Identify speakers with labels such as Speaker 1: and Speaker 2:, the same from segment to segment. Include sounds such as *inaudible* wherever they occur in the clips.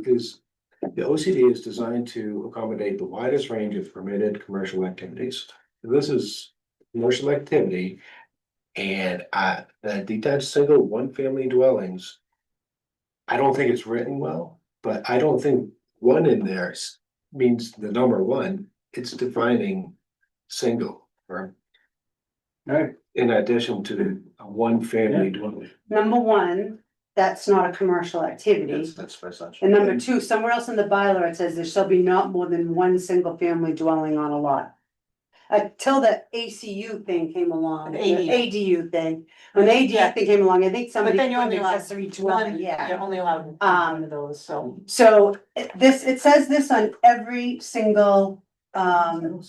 Speaker 1: because the OCD is designed to accommodate the widest range of permitted commercial activities. This is commercial activity. And I, the detached single one-family dwellings. I don't think it's written well, but I don't think one in there s- means the number one, it's defining single or.
Speaker 2: Right.
Speaker 1: In addition to a one-family dwelling.
Speaker 3: Number one, that's not a commercial activity.
Speaker 1: that's by such.
Speaker 3: And number two, somewhere else in the bylaw, it says there shall be not more than one single family dwelling on a lot. Until the ACU thing came along, the
Speaker 4: ADU.
Speaker 3: ADU thing, when the ADU thing came along, I think
Speaker 4: But
Speaker 3: somebody.
Speaker 4: then you're
Speaker 3: put an
Speaker 4: only allowed
Speaker 3: accessory
Speaker 4: one,
Speaker 3: dwelling,
Speaker 4: you're
Speaker 3: yeah.
Speaker 4: only allowed
Speaker 3: Um,
Speaker 4: one of those, so.
Speaker 3: So eh, this, it says this on every single, um,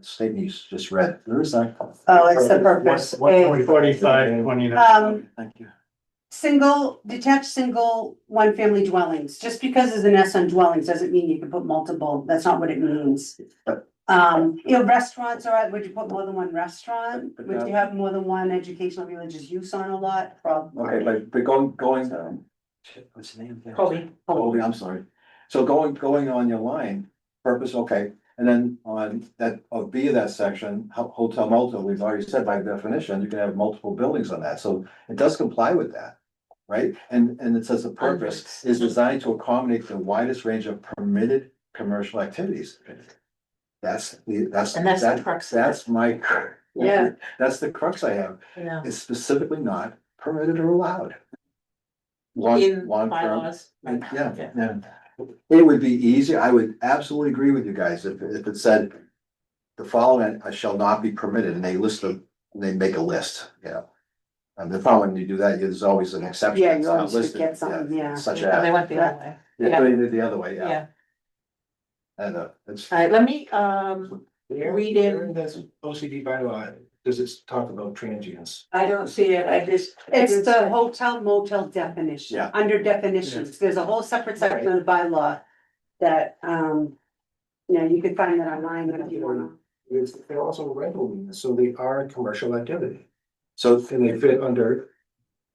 Speaker 1: Statement you just read, there is that.
Speaker 3: oh, it's the purpose. eh,
Speaker 2: Forty-five, twenty-nine.
Speaker 3: Um,
Speaker 1: Thank you.
Speaker 3: Single, detached, single, one-family dwellings, just because there's an S on dwellings doesn't mean you can put multiple, that's not what it means. Um, you know, restaurants, all right, would you put more than one restaurant? Would you have more than one educational religious use on a lot? Probably.
Speaker 5: Okay, but, but going, going, um, shit, what's the name?
Speaker 4: Colby.
Speaker 5: Colby, I'm sorry. So going, going on your line, purpose, okay, and then on that, of B of that section, ho- hotel motel, we've already said by definition, you can have multiple buildings on that, so it does comply with that. Right? And, and it says the purpose is designed to accommodate the widest range of permitted commercial activities. That's, the that's,
Speaker 4: And that's the
Speaker 5: that-
Speaker 4: crux of it.
Speaker 5: that's my,
Speaker 3: Yeah.
Speaker 5: that's the crux I have.
Speaker 4: Yeah.
Speaker 5: is specifically not permitted or allowed. Long,
Speaker 4: In
Speaker 5: long term,
Speaker 4: bylaws.
Speaker 5: and- yeah,
Speaker 4: Yeah.
Speaker 5: yeah. It would be easier, I would absolutely agree with you guys if, if it said. The following uh, shall not be permitted and they list them, and they make a list, you know. And the problem when you do that, there's always an exception.
Speaker 3: Yeah, you
Speaker 5: that's not
Speaker 3: always could
Speaker 5: listed,
Speaker 3: get something, yeah.
Speaker 5: Such
Speaker 4: And They
Speaker 5: as,
Speaker 4: went the other way,
Speaker 5: yeah, they did the other way, yeah,
Speaker 4: yeah.
Speaker 5: and, uh, it's,
Speaker 4: All right, let me, um, Read it.
Speaker 1: That's OCD bylaw, does it talk about transients?
Speaker 4: I don't see it, I just.
Speaker 3: It's the hotel motel definition.
Speaker 5: Yeah.
Speaker 3: Under definitions, there's a whole separate section of the bylaw that, um, you know, you could find that online if you wanna.
Speaker 1: It's, they're also rental units, so they are a commercial activity,
Speaker 5: so,
Speaker 1: and they fit under,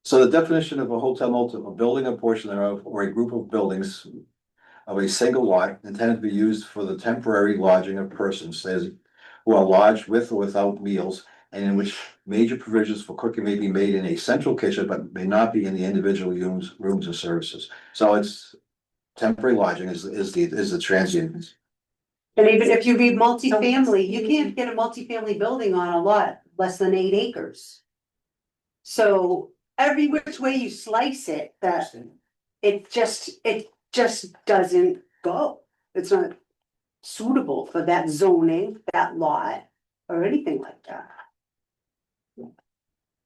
Speaker 5: so the definition of a hotel multiple, a building or portion thereof, or a group of buildings. Of a single lot intended to be used for the temporary lodging of persons, says, who are lodged with or without meals. And in which major provisions for cooking may be made in a central kitchen, but may not be in the individual rooms, rooms or services, so it's. Temporary lodging is, is the, is the transient,
Speaker 3: And even if you read multifamily, you
Speaker 4: Mhm.
Speaker 3: can't get a multifamily building on a lot less than eight acres. So every which way you slice it, that it just, it just doesn't go. It's not suitable for that zoning, that lot, or anything like that.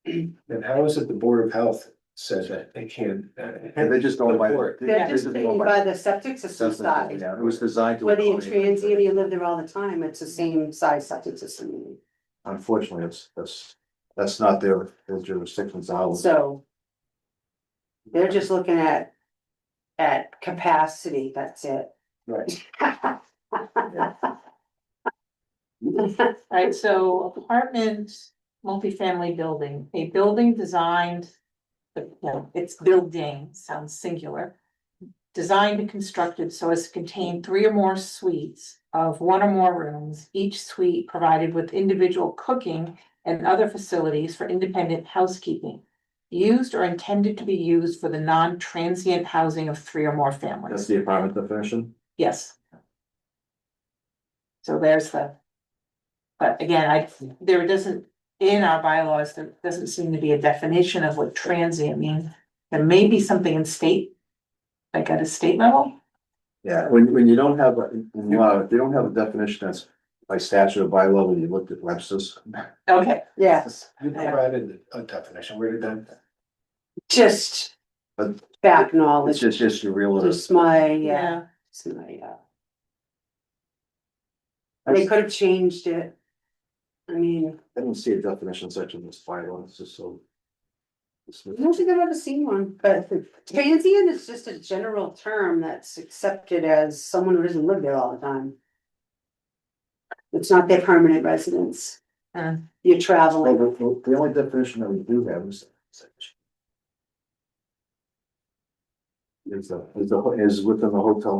Speaker 1: and how is it the Board of Health says that they uh, can?
Speaker 5: and they just don't.
Speaker 3: They're just taken by the septic system size.
Speaker 5: It was designed to.
Speaker 3: Whether you're
Speaker 5: accommodate-
Speaker 3: transient, or you live there all the time, it's the same size septic system,
Speaker 5: Unfortunately, it's, that's, that's not their, their jurisdiction's hours.
Speaker 3: so. They're just looking at, at capacity, that's it.
Speaker 5: Right.
Speaker 4: Alright, so apartment, multifamily building, a building designed. but, No, it's building, sounds singular. Designed and constructed so as to contain three or more suites of one or more rooms, each suite provided with individual cooking. And other facilities for independent housekeeping. Used or intended to be used for the non-transient housing of three or more
Speaker 5: That's
Speaker 4: families,
Speaker 5: the apartment definition.
Speaker 4: yes. So there's the. But again, I, there doesn't, in our bylaws, there doesn't seem to be a definition of what transient means. There may be something in state, like at a state level,
Speaker 5: Yeah, when, when you don't have, a in law, if you don't have a definition that's by statute or by law, when you looked at Webster's.
Speaker 4: okay,
Speaker 3: *laughs* Yeah,
Speaker 1: You provided a definition, where did that?
Speaker 3: just
Speaker 5: But-
Speaker 3: back
Speaker 5: It's
Speaker 3: knowledge,
Speaker 5: just, just your real.
Speaker 3: just my, yeah,
Speaker 4: yeah,
Speaker 3: it's my, uh, They could have changed it. I mean,
Speaker 5: I don't see a definition such in this bylaw, it's just so. it's-
Speaker 3: I don't think I've ever seen one, but transient is just a general term that's accepted as someone who doesn't live there all the time. It's not their permanent residence.
Speaker 4: Hmm.
Speaker 3: You're
Speaker 5: Well,
Speaker 3: traveling,
Speaker 5: the, the- the only definition that we do have is. Is, a- is, a- is within the hotel